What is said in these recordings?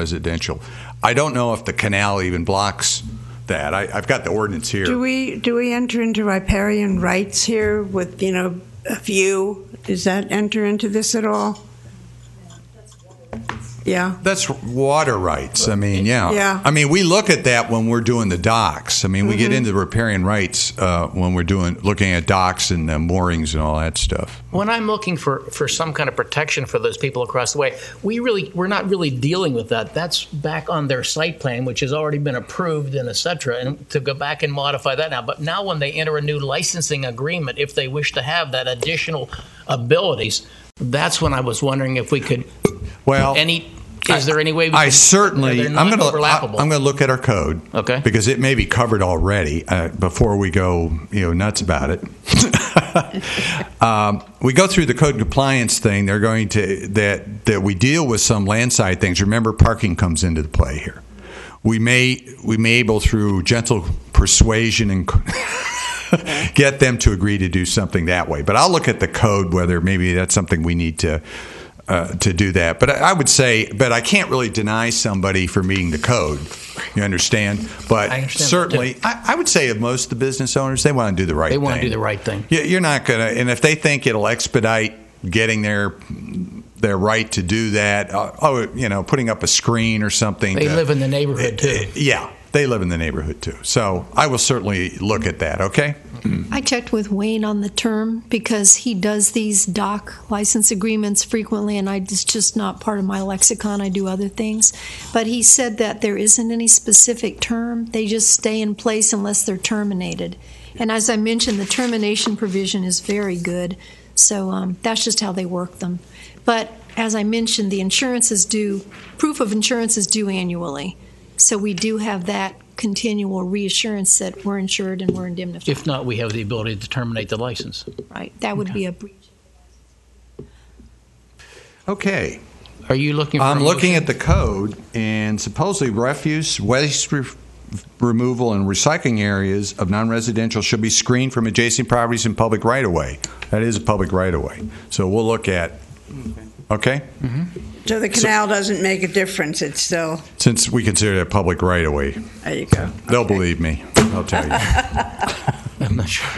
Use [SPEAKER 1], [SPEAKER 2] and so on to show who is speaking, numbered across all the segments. [SPEAKER 1] non-residential. I don't know if the canal even blocks that. I, I've got the ordinance here.
[SPEAKER 2] Do we, do we enter into riparian rights here with, you know, a view? Does that enter into this at all? Yeah,
[SPEAKER 1] That's water rights. I mean, yeah.
[SPEAKER 2] Yeah. Mm-hmm.
[SPEAKER 1] I mean, we look at that when we're doing the docks. I mean, we get into riparian rights uh, when we're doing looking at docks and uh, moorings and all that stuff.
[SPEAKER 3] when I'm looking for, for some kind of protection for those people across the way, we really we're not really dealing with that. That's back on their site plan, which has already been approved and et cetera, and to go back and modify that now. But now when they enter a new licensing agreement, if they wish to have that additional abilities, that's when I was wondering if we could
[SPEAKER 1] Well,
[SPEAKER 3] any is there any way we
[SPEAKER 1] Oh, I
[SPEAKER 3] can-
[SPEAKER 1] certainly
[SPEAKER 3] they're
[SPEAKER 1] I'm going
[SPEAKER 3] not
[SPEAKER 1] to I'm
[SPEAKER 3] overlappable.
[SPEAKER 1] going to look at our code.
[SPEAKER 3] Okay.
[SPEAKER 1] Because it may be covered already uh, before we go you know nuts about it. um, we go through the code compliance thing. They're going to that that we deal with some landside things. Remember, parking comes into the play here. We may we may able through gentle persuasion and. Get them to agree to do something that way, but I'll look at the code whether maybe that's something we need to uh, to do that. But I, I would say, but I can't really deny somebody for meeting the code. You understand? But
[SPEAKER 3] I understand that,
[SPEAKER 1] certainly, I, I would say of most of the business owners, they want to do the right.
[SPEAKER 3] They
[SPEAKER 1] thing.
[SPEAKER 3] want to do the right thing.
[SPEAKER 1] Yeah, you're not gonna. And if they think it'll expedite getting their their right to do that, uh, oh, you know, putting up a screen or something.
[SPEAKER 3] They
[SPEAKER 1] to-
[SPEAKER 3] live in the neighborhood too.
[SPEAKER 1] Yeah, they live in the neighborhood too. So I will certainly look at that. Okay.
[SPEAKER 4] I checked with Wayne on the term because he does these doc license agreements frequently, and I, it's just not part of my lexicon. I do other things. But he said that there isn't any specific term, they just stay in place unless they're terminated. And as I mentioned, the termination provision is very good. So um, that's just how they work them. But as I mentioned, the insurance is due, proof of insurance is due annually. So we do have that continual reassurance that we're insured and we're indemnified.
[SPEAKER 3] If not, we have the ability to terminate the license.
[SPEAKER 4] Right, that would be a breach.
[SPEAKER 1] Okay.
[SPEAKER 3] Are you looking for
[SPEAKER 1] I'm
[SPEAKER 3] a
[SPEAKER 1] looking
[SPEAKER 3] motion?
[SPEAKER 1] at the code, and supposedly refuse, waste re- removal, and recycling areas of non-residential should be screened from adjacent properties and public right-of-way. That is a public right-of-way. So we'll look at, okay?
[SPEAKER 2] so the canal doesn't make a difference, it's still,
[SPEAKER 1] Since we consider that public right-of-way,
[SPEAKER 2] there you go.
[SPEAKER 1] they'll believe me, I'll tell you.
[SPEAKER 3] I'm not sure.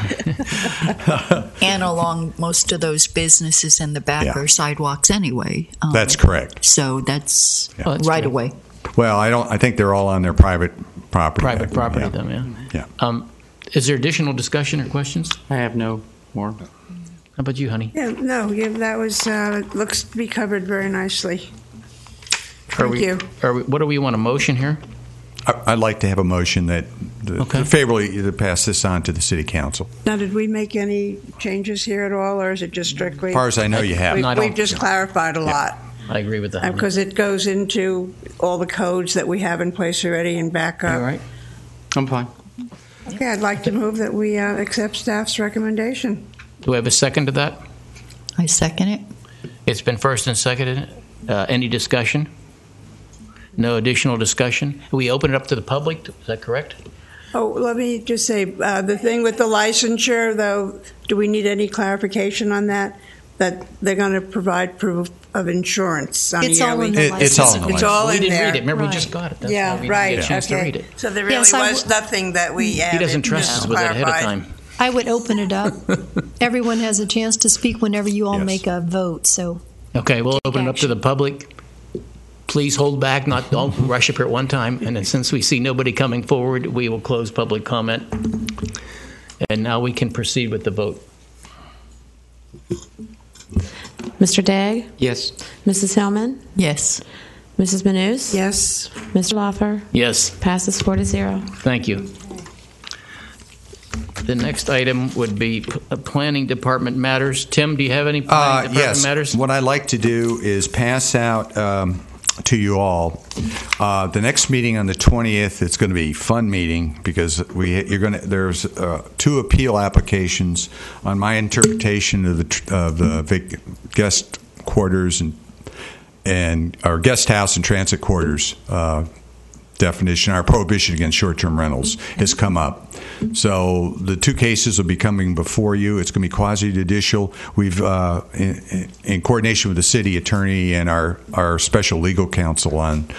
[SPEAKER 5] And along most of those businesses in the back
[SPEAKER 1] Yeah.
[SPEAKER 5] are sidewalks anyway. Um,
[SPEAKER 1] That's correct.
[SPEAKER 5] So that's
[SPEAKER 1] Yeah. Oh,
[SPEAKER 3] that's
[SPEAKER 5] right
[SPEAKER 3] true.
[SPEAKER 5] away.
[SPEAKER 1] Well, I don't, I think they're all on their private property.
[SPEAKER 3] Private property,
[SPEAKER 1] Yeah.
[SPEAKER 3] though, yeah.
[SPEAKER 1] Yeah.
[SPEAKER 3] Um, is there additional discussion or questions? How
[SPEAKER 6] I have no more.
[SPEAKER 3] about you, honey?
[SPEAKER 2] Yeah, no, yeah, that was, uh, it looks to be covered very nicely.
[SPEAKER 3] Are
[SPEAKER 2] Thank
[SPEAKER 3] we-
[SPEAKER 2] you.
[SPEAKER 3] Are we, what do we want, a motion here?
[SPEAKER 1] I- I'd like to have a motion that
[SPEAKER 3] Okay.
[SPEAKER 1] favorably to pass this on to the city council.
[SPEAKER 2] Now, did we make any changes here at all, or is it just strictly?
[SPEAKER 1] As far as I know, you have.
[SPEAKER 3] No, I
[SPEAKER 2] We've
[SPEAKER 3] don't-
[SPEAKER 2] we've just clarified a lot,
[SPEAKER 3] I agree with that.
[SPEAKER 2] because it goes into all the codes that we have in place already and back
[SPEAKER 3] All
[SPEAKER 2] up.
[SPEAKER 3] right.
[SPEAKER 6] I'm fine.
[SPEAKER 2] Okay, I'd like to move that we uh, accept staff's recommendation.
[SPEAKER 3] Do we have a second to that?
[SPEAKER 5] I second it.
[SPEAKER 3] It's been first and seconded. Uh, any discussion? No additional discussion? We open it up to the public, is that correct?
[SPEAKER 2] Oh, let me just say, uh, the thing with the licensure, though, do we need any clarification on that? That they're going to provide proof of insurance on a
[SPEAKER 4] It's all
[SPEAKER 2] yearly-
[SPEAKER 4] in the
[SPEAKER 1] It- it's all in the
[SPEAKER 4] license.
[SPEAKER 2] It's all
[SPEAKER 3] We
[SPEAKER 2] in
[SPEAKER 3] didn't
[SPEAKER 2] there.
[SPEAKER 3] read it, remember, we
[SPEAKER 4] Right.
[SPEAKER 3] just got it. That's why we
[SPEAKER 2] Yeah,
[SPEAKER 3] didn't
[SPEAKER 2] right.
[SPEAKER 3] get a chance to
[SPEAKER 2] okay.
[SPEAKER 3] read it.
[SPEAKER 2] So there really
[SPEAKER 4] Yes, I
[SPEAKER 2] was
[SPEAKER 4] w-
[SPEAKER 2] nothing that we added.
[SPEAKER 3] He doesn't trust
[SPEAKER 2] just
[SPEAKER 3] us with that ahead of
[SPEAKER 2] clarified.
[SPEAKER 3] time.
[SPEAKER 4] I would open it up. Everyone has a chance to speak whenever you all
[SPEAKER 1] Yes.
[SPEAKER 4] make a vote, so
[SPEAKER 3] Okay, we'll
[SPEAKER 4] Take
[SPEAKER 3] open it up to
[SPEAKER 4] action.
[SPEAKER 3] the public. Please hold back, not, don't rush up here at one time. And then since we see nobody coming forward, we will close public comment. And now we can proceed with the vote.
[SPEAKER 7] Mr. Dagg,
[SPEAKER 6] Yes.
[SPEAKER 7] Mrs. Hellman,
[SPEAKER 5] Yes.
[SPEAKER 7] Mrs. Manus,
[SPEAKER 2] Yes,
[SPEAKER 7] Mr. Lawfer,
[SPEAKER 3] Yes,
[SPEAKER 7] passes four to zero.
[SPEAKER 3] thank you. The next item would be p- uh, Planning Department matters. Tim, do you have any
[SPEAKER 1] Uh,
[SPEAKER 3] Planning Department
[SPEAKER 1] yes.
[SPEAKER 3] matters?
[SPEAKER 1] What I'd like to do is pass out um, to you all. Uh, the next meeting on the 20th, it's going to be a fun meeting because we, you're going to, there's uh, two appeal applications on my interpretation of the, tr- of the vac- guest quarters and, and, or guest house and transit quarters uh, definition, our prohibition against short-term rentals has come up. So the two cases will be coming before you. It's going to be quasi-judicial. We've, uh, in, in coordination with the city attorney and our, our special legal counsel on